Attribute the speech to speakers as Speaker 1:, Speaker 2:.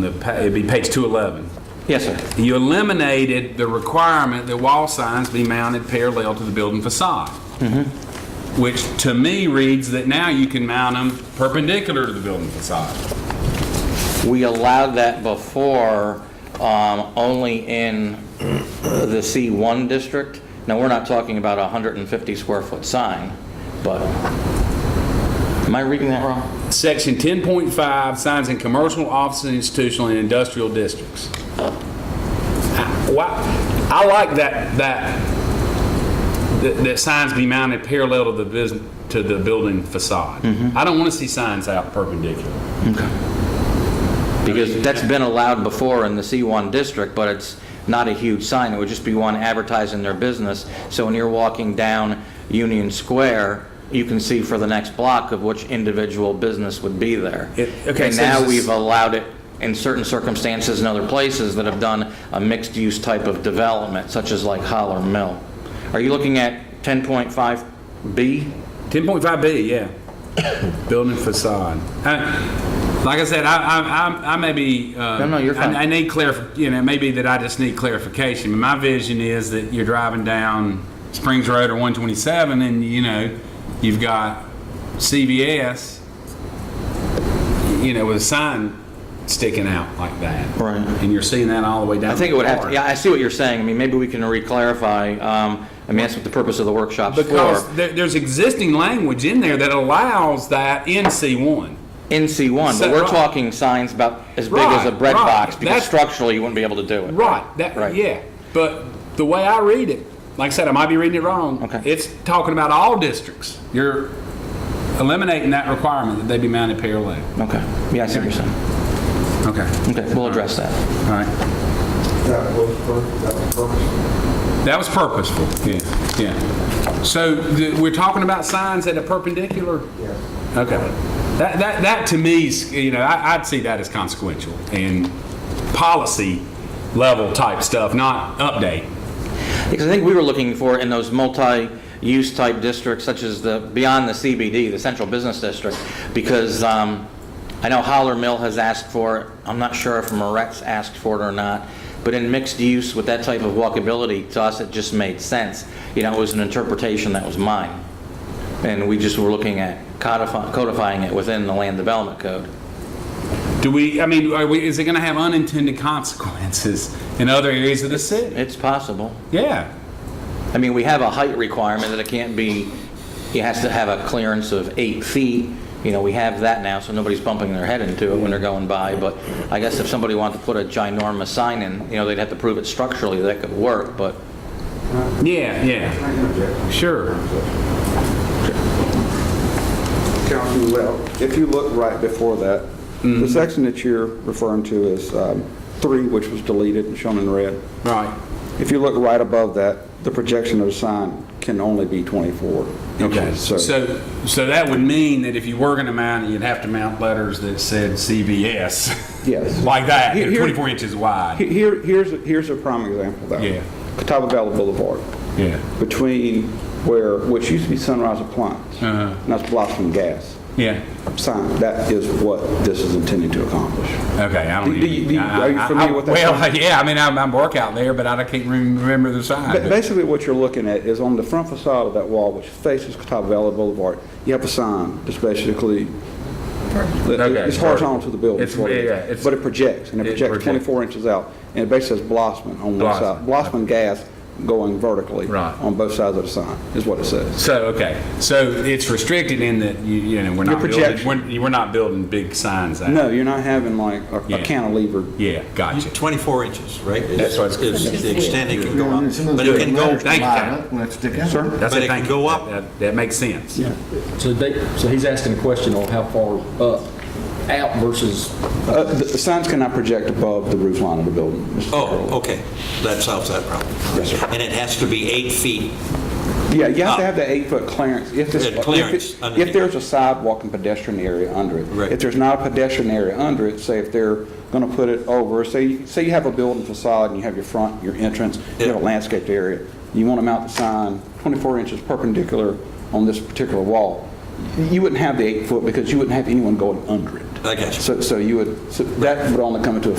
Speaker 1: The pa- It'd be page 211.
Speaker 2: Yes, sir.
Speaker 1: You eliminated the requirement that wall signs be mounted parallel to the building facade. Which to me reads that now you can mount them perpendicular to the building facade.
Speaker 2: We allowed that before, um, only in the C1 district. Now, we're not talking about a 150 square foot sign, but, am I reading that wrong?
Speaker 1: Section 10.5, signs in commercial, office, and institutional and industrial districts. I- Why, I like that, that, that- that signs be mounted parallel to the business, to the building facade. I don't want to see signs out perpendicular.
Speaker 2: Because that's been allowed before in the C1 district, but it's not a huge sign. It would just be one advertising their business. So when you're walking down Union Square, you can see for the next block of which individual business would be there.
Speaker 1: It- okay,
Speaker 2: And
Speaker 1: so
Speaker 2: now
Speaker 1: this is-
Speaker 2: we've allowed it in certain circumstances in other places that have done a mixed-use type of development, such as like Holler Mill. Are you looking at 10.5B?
Speaker 1: 10.5B, yeah. Building facade. I- Like I said, I, I, I- I may be. uh,
Speaker 2: No, no, you're fine.
Speaker 1: I I need clarif, you know, it may be that I just need clarification. My vision is that you're driving down Springs Road or 127 and, you know, you've got CVS, you know, with a sign sticking out like that.
Speaker 2: Right.
Speaker 1: And you're seeing that all the way down.
Speaker 2: I think it would have, to.
Speaker 1: Florida.
Speaker 2: yeah, I see what you're saying. I mean, maybe we can re-clarify. Um, I mean, that's what the purpose of the workshop's for.
Speaker 1: Because there, there's existing language in there that allows that in C1.
Speaker 2: in C1, but
Speaker 1: So-
Speaker 2: we're
Speaker 1: right.
Speaker 2: talking signs about as big as a
Speaker 1: Right,
Speaker 2: bread
Speaker 1: right.
Speaker 2: box, because
Speaker 1: That's-
Speaker 2: structurally, you wouldn't be able to do it.
Speaker 1: Right. That,
Speaker 2: Right.
Speaker 1: Yeah. But the way I read it, like I said, I might be reading it wrong.
Speaker 2: Okay.
Speaker 1: It's talking about all districts. You're eliminating that requirement that they be mounted parallel.
Speaker 2: Okay, yeah, I see what you're saying.
Speaker 1: Okay.
Speaker 2: Okay, we'll address that.
Speaker 1: All right.
Speaker 3: That was for, that was purpose.
Speaker 1: That was purposeful. Yeah. Yeah. So the, we're talking about signs that are perpendicular.
Speaker 3: Yes.
Speaker 1: Okay. That, that, that to me is, you know, I, I'd see that as consequential and policy level type stuff, not update.
Speaker 2: Because I think we were looking for in those multi-use type districts, such as the, beyond the CBD, the Central Business District, because um, I know Holler Mill has asked for it, I'm not sure if Moret's asked for it or not, but in mixed use with that type of walkability, to us, it just made sense. You know, it was an interpretation that was mine, and we just were looking at codify- codifying it within the land development code.
Speaker 1: Do we, I mean, are we, is it going to have unintended consequences in other areas of the city?
Speaker 2: It's possible.
Speaker 1: Yeah.
Speaker 2: I mean, we have a height requirement that it can't be, it has to have a clearance of eight feet. You know, we have that now, so nobody's bumping their head into it when they're going by. But I guess if somebody wanted to put a ginormous sign in, you know, they'd have to prove it structurally that could work, but
Speaker 1: Yeah, yeah.
Speaker 3: I interject.
Speaker 1: Sure.
Speaker 3: Councilman Webb, if you look right before that,
Speaker 1: Mm-hmm.
Speaker 3: the section that you're referring to is um, three, which was deleted and shown in red.
Speaker 1: Right.
Speaker 3: If you look right above that, the projection of the sign can only be 24
Speaker 1: Okay.
Speaker 3: inches.
Speaker 1: So, so that would mean that if you were going to mount it, you'd have to mount letters that said CVS.
Speaker 3: Yes.
Speaker 1: Like that,
Speaker 3: Here-
Speaker 1: you know,
Speaker 3: here-
Speaker 1: 24 inches wide.
Speaker 3: Here, here's, here's a prime example though.
Speaker 1: Yeah.
Speaker 3: Catawba Valley Boulevard,
Speaker 1: Yeah.
Speaker 3: between where, which used to be Sunrise Appliance,
Speaker 1: Uh-huh.
Speaker 3: and that's Blossom Gas
Speaker 1: Yeah.
Speaker 3: sign, that is what this is intending to accomplish.
Speaker 1: Okay. I don't.
Speaker 3: Do- do you- do you-
Speaker 1: I-
Speaker 3: are you
Speaker 1: I- I-
Speaker 3: familiar with that
Speaker 1: Well,
Speaker 3: sign?
Speaker 1: yeah. I mean, I, I work out there, but I can't rem- remember the sign.
Speaker 3: Ba- Basically, what you're looking at is on the front facade of that wall, which faces Catawba Valley Boulevard, you have a sign that's basically,
Speaker 1: Okay,
Speaker 3: it's horizontal to the building.
Speaker 1: It's-
Speaker 3: is what it is.
Speaker 1: yeah, it's-
Speaker 3: But it projects, and it
Speaker 1: it
Speaker 3: projects
Speaker 1: projects.
Speaker 3: 24 inches out, and it basically says Blossman on one side. Blossman gas going vertically.
Speaker 1: Right.
Speaker 3: On both sides of the sign, is what it says.
Speaker 1: So, okay, so it's restricted in that, you you know, we're not building,
Speaker 3: projection.
Speaker 1: we're we're not building big signs out.
Speaker 3: No, you're not having like a-
Speaker 1: Yeah.
Speaker 3: a cantilever.
Speaker 1: Yeah, gotcha.
Speaker 4: 24 inches, right?
Speaker 1: That's what it's-
Speaker 4: Is the extent it can go up. But it can go,
Speaker 1: thank you.
Speaker 5: Let's stick out. Sir?
Speaker 1: That's
Speaker 4: But
Speaker 1: a
Speaker 4: it can
Speaker 1: thank
Speaker 4: go
Speaker 1: you.
Speaker 4: up.
Speaker 1: That- That makes sense.
Speaker 6: So they, so he's asking a question on how far up, out versus,
Speaker 3: Uh, The the signs cannot project above the roof line of the building. Mr. Earl.
Speaker 4: oh, okay, that solves that problem.
Speaker 3: Yes, sir.
Speaker 4: And it has to be eight feet.
Speaker 3: Yeah, you have to
Speaker 4: Up.
Speaker 3: have the eight-foot clearance. If there's,
Speaker 4: Ah. Yeah,
Speaker 3: if
Speaker 4: clearance
Speaker 3: it- if
Speaker 4: underneath.
Speaker 3: there's a sidewalk and pedestrian area under it.
Speaker 4: Right.
Speaker 3: If there's not a pedestrian area under it, say if they're going to put it over, say, say you have a building facade and you have your front, your entrance, you have a
Speaker 4: Yeah.
Speaker 3: landscaped area, you want to mount the sign 24 inches perpendicular on this particular wall, you wouldn't have the eight-foot because you wouldn't have anyone going under it.
Speaker 4: I got you.
Speaker 3: So, so you would, so that would only come into effect